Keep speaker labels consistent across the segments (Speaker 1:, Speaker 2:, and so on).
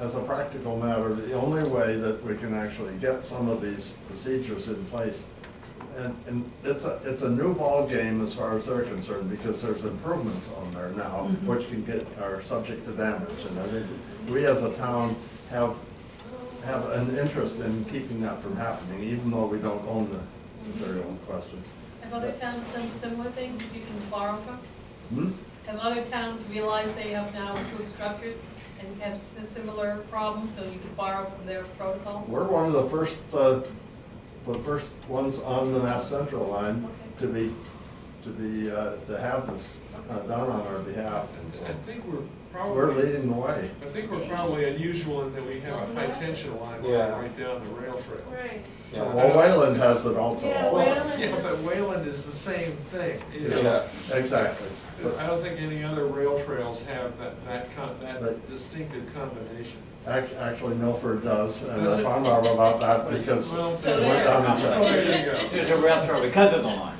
Speaker 1: as a practical matter, the only way that we can actually get some of these procedures in place, and, and it's a, it's a new ballgame as far as they're concerned, because there's improvements on there now,
Speaker 2: Mhm.
Speaker 1: which can get, are subject to damage, and I think we as a town have, have an interest in keeping that from happening, even though we don't own the material in question.
Speaker 3: Have other towns done similar things that you can borrow from?
Speaker 1: Hmm?
Speaker 3: Have other towns realized they have now improved structures and have si- similar problems, so you can borrow from their protocols?
Speaker 1: We're one of the first, uh, the first ones on the Mass Central line to be, to be, uh, to have this uh, done on our behalf.
Speaker 4: I
Speaker 1: and
Speaker 4: th- I
Speaker 1: so
Speaker 4: think we're
Speaker 1: We're
Speaker 4: probably,
Speaker 1: leading the way.
Speaker 4: I think we're probably unusual in that we have a high tension line going
Speaker 5: Yeah.
Speaker 4: right down the rail trail.
Speaker 2: Right.
Speaker 5: Yeah.
Speaker 1: Well, Wayland has it also.
Speaker 2: Yeah,
Speaker 4: Well,
Speaker 2: Wayland-
Speaker 4: yeah, but Wayland is the same thing, you know.
Speaker 5: Yeah.
Speaker 1: Exactly.
Speaker 4: I don't think any other rail trails have that, that con, that
Speaker 1: But-
Speaker 4: distinctive combination.
Speaker 1: Act- Actually, Milford does, and
Speaker 4: Does
Speaker 1: I
Speaker 4: it?
Speaker 1: found out about that because
Speaker 4: Well,
Speaker 3: So
Speaker 1: we're on
Speaker 4: so
Speaker 1: the check.
Speaker 4: there you go.
Speaker 5: There's a rail trail because of the line.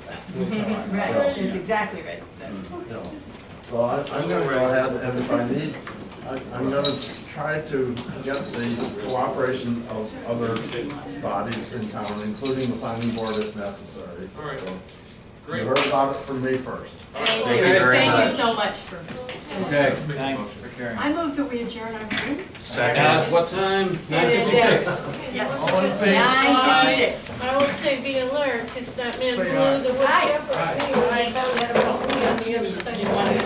Speaker 2: Right, that's exactly right, so.
Speaker 1: Yeah. Well, I- I'm gonna go ahead and if I need, I- I'm gonna try to get the cooperation of other bodies in town, including the planning board if necessary.
Speaker 4: All right.
Speaker 1: So,
Speaker 4: Great.
Speaker 1: You heard about it from me first.
Speaker 2: Thank
Speaker 5: Thank
Speaker 2: you,
Speaker 5: you very
Speaker 2: thank
Speaker 5: much.
Speaker 2: you so much for.
Speaker 5: Okay, thanks for carrying.
Speaker 2: I move that we adjourn our meeting.
Speaker 5: Now, it's what time? Nine
Speaker 2: It is
Speaker 5: fifty-six.
Speaker 2: Yes.
Speaker 4: All in favor?
Speaker 2: Nine twenty-six.
Speaker 6: I would say be alert, because that man
Speaker 4: Say
Speaker 6: blew
Speaker 4: aye.
Speaker 6: the wood
Speaker 2: Aye.
Speaker 6: chipper.
Speaker 4: Aye.
Speaker 6: Anyway, I found that out on the other side of the